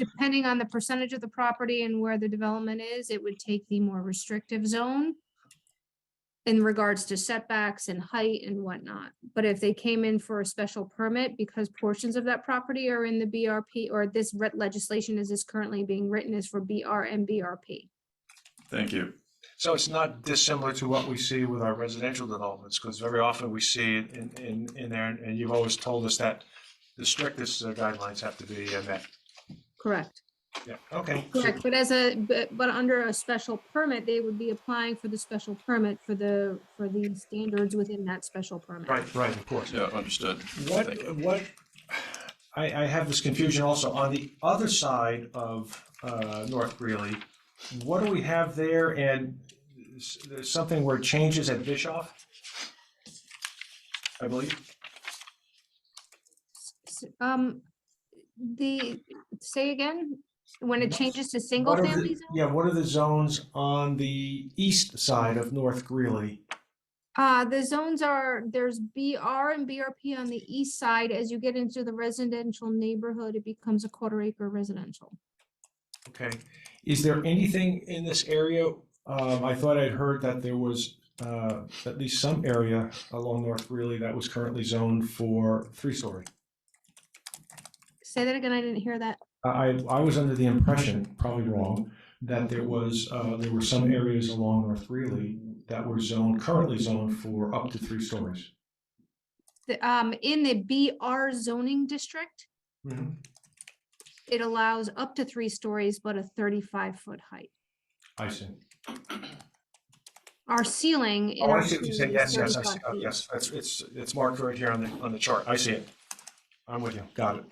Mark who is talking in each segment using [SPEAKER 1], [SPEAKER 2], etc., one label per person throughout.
[SPEAKER 1] depending on the percentage of the property and where the development is, it would take the more restrictive zone in regards to setbacks and height and whatnot. But if they came in for a special permit because portions of that property are in the BRP or this re- legislation as is currently being written is for BR and BRP.
[SPEAKER 2] Thank you.
[SPEAKER 3] So it's not dissimilar to what we see with our residential developments, because very often we see it in, in, in there, and you've always told us that the strictest uh, guidelines have to be uh, met.
[SPEAKER 1] Correct.
[SPEAKER 3] Yeah, okay.
[SPEAKER 1] Correct, but as a, but, but under a special permit, they would be applying for the special permit for the, for the standards within that special permit.
[SPEAKER 3] Right, right, of course.
[SPEAKER 2] Yeah, understood. Thank you.
[SPEAKER 3] What, what, I, I have this confusion also, on the other side of uh, North Greeley, what do we have there, and s- there's something where it changes at Bischoff? I believe,
[SPEAKER 1] S- Um, the, say again, when it changes to single
[SPEAKER 3] What are the-
[SPEAKER 1] family zone?
[SPEAKER 3] yeah, what are the zones on the east side of North Greeley?
[SPEAKER 1] Uh, the zones are, there's BR and BRP on the east side. As you get into the residential neighborhood, it becomes a quarter acre residential.
[SPEAKER 3] Okay, is there anything in this area? Um, I thought I'd heard that there was, uh, at least some area along North Greeley that was currently zoned for three-story.
[SPEAKER 1] Say that again, I didn't hear that.
[SPEAKER 3] I, I was under the impression, probably wrong, that there was, uh, there were some areas along North Greeley that were zoned, currently zoned for up to three stories.
[SPEAKER 1] The, um, in the BR zoning district, it allows up to three stories, but a thirty-five foot height.
[SPEAKER 3] I see.
[SPEAKER 1] Our ceiling. in
[SPEAKER 3] Oh, I
[SPEAKER 1] our
[SPEAKER 3] see what you
[SPEAKER 1] community
[SPEAKER 3] said,
[SPEAKER 1] is
[SPEAKER 3] yes, yes, I see,
[SPEAKER 1] 35
[SPEAKER 3] Oh,
[SPEAKER 1] feet.
[SPEAKER 3] yes, it's, it's, it's marked right here on the, on the chart, I see it. I'm with you, got it.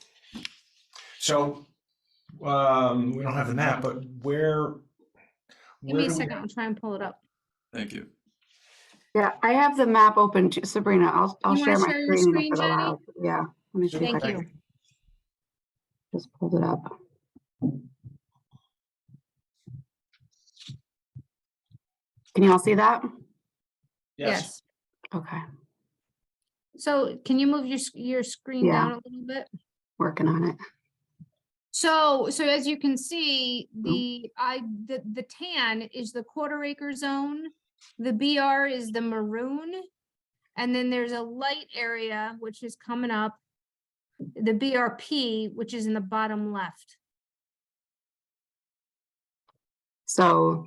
[SPEAKER 3] So, um, we don't have the map, but where?
[SPEAKER 1] Give me
[SPEAKER 3] where
[SPEAKER 1] a
[SPEAKER 3] do we-
[SPEAKER 1] second, I'll try and pull it up.
[SPEAKER 2] Thank you.
[SPEAKER 4] Yeah, I have the map open to Sabrina. I'll, I'll
[SPEAKER 1] You
[SPEAKER 4] share
[SPEAKER 1] wanna
[SPEAKER 4] my
[SPEAKER 1] share your
[SPEAKER 4] screen. if
[SPEAKER 1] screen,
[SPEAKER 4] it
[SPEAKER 1] Jenny?
[SPEAKER 4] allows. Yeah. let me see if
[SPEAKER 1] Thank
[SPEAKER 4] I
[SPEAKER 1] you.
[SPEAKER 4] Just pulled it up. Can you all see that?
[SPEAKER 3] Yes,
[SPEAKER 1] Yes.
[SPEAKER 4] Okay,
[SPEAKER 1] So can you move your, s- your screen
[SPEAKER 4] Yeah.
[SPEAKER 1] down a little bit?
[SPEAKER 4] working on it.
[SPEAKER 1] So, so as you can see,
[SPEAKER 4] Mm-hmm.
[SPEAKER 1] the, I, the, the tan is the quarter acre zone. The BR is the maroon. And then there's a light area, which is coming up. The BRP, which is in the bottom left.
[SPEAKER 4] So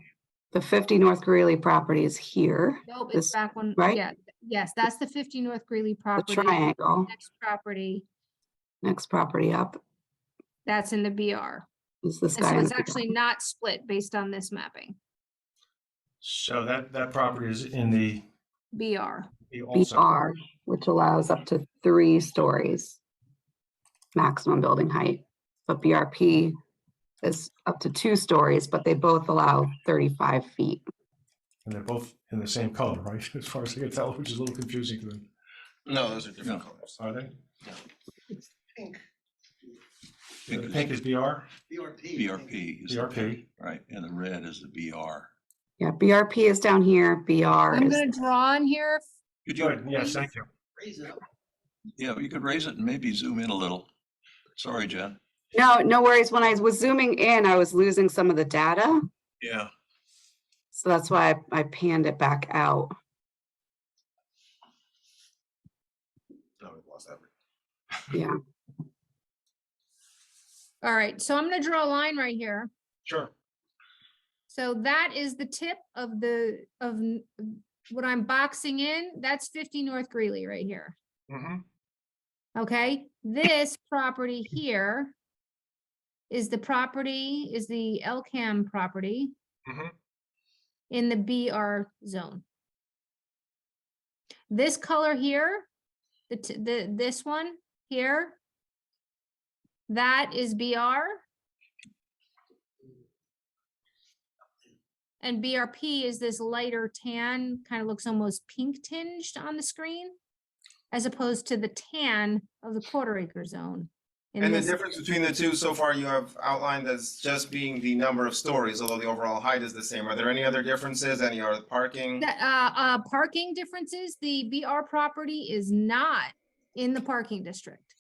[SPEAKER 4] the 50 North Greeley property is here,
[SPEAKER 1] Nope,
[SPEAKER 4] This-
[SPEAKER 1] it's back one,
[SPEAKER 4] right?
[SPEAKER 1] yeah, yes, that's the fifty North Greeley
[SPEAKER 4] the
[SPEAKER 1] property.
[SPEAKER 4] triangle,
[SPEAKER 1] Next property,
[SPEAKER 4] next property up
[SPEAKER 1] that's in the BR.
[SPEAKER 4] is this
[SPEAKER 1] And
[SPEAKER 4] guy.
[SPEAKER 1] so
[SPEAKER 4] in
[SPEAKER 1] it's
[SPEAKER 4] the middle.
[SPEAKER 1] actually not split based on this mapping,
[SPEAKER 3] so that, that property is in the,
[SPEAKER 1] BR.
[SPEAKER 3] the also,
[SPEAKER 4] BR, which allows up to three stories maximum building height. But BRP is up to two stories, but they both allow 35 feet.
[SPEAKER 3] and they're both in the same color, right, as far as I can tell, which is a little confusing to me,
[SPEAKER 5] No, those are
[SPEAKER 2] different
[SPEAKER 5] colors.
[SPEAKER 3] are they?
[SPEAKER 5] Pink,
[SPEAKER 3] The Pink is BR,
[SPEAKER 5] BRP.
[SPEAKER 2] BRP is the
[SPEAKER 3] BRP.
[SPEAKER 2] pink, right, and the red is the BR.
[SPEAKER 4] Yeah, BRP is down here, BR
[SPEAKER 1] I'm
[SPEAKER 4] is,
[SPEAKER 1] gonna draw on here.
[SPEAKER 2] Could
[SPEAKER 3] good,
[SPEAKER 2] you,
[SPEAKER 3] yes, thank you.
[SPEAKER 5] Raise it up.
[SPEAKER 2] yeah, you could raise it and maybe zoom in a little. Sorry, Jen.
[SPEAKER 4] no, no worries. When I was zooming in, I was losing some of the data.
[SPEAKER 2] Yeah,
[SPEAKER 4] So that's why I- I panned it back out.
[SPEAKER 5] No, we lost that.
[SPEAKER 4] Yeah,
[SPEAKER 1] All right, so I'm gonna draw a line right here.
[SPEAKER 3] Sure.
[SPEAKER 1] So that is the tip of the, of n- what I'm boxing in. That's fifty North Greeley right here.
[SPEAKER 3] Mhm.
[SPEAKER 1] Okay, this property here is the property, is the LCAM property
[SPEAKER 5] Mm-hmm.
[SPEAKER 3] Mhm.
[SPEAKER 1] in the BR zone. This color here, the, t- the, this one here, that is BR. And BRP is this lighter tan, kind of looks almost pink tinged on the screen as opposed to the tan of the quarter acre zone. in
[SPEAKER 5] And the
[SPEAKER 1] this-
[SPEAKER 5] difference between the two so far you have outlined as just being the number of stories, although the overall height is the same. Are there any other differences? Any other parking?
[SPEAKER 1] That, uh, uh, parking differences, the BR property is not in the parking district.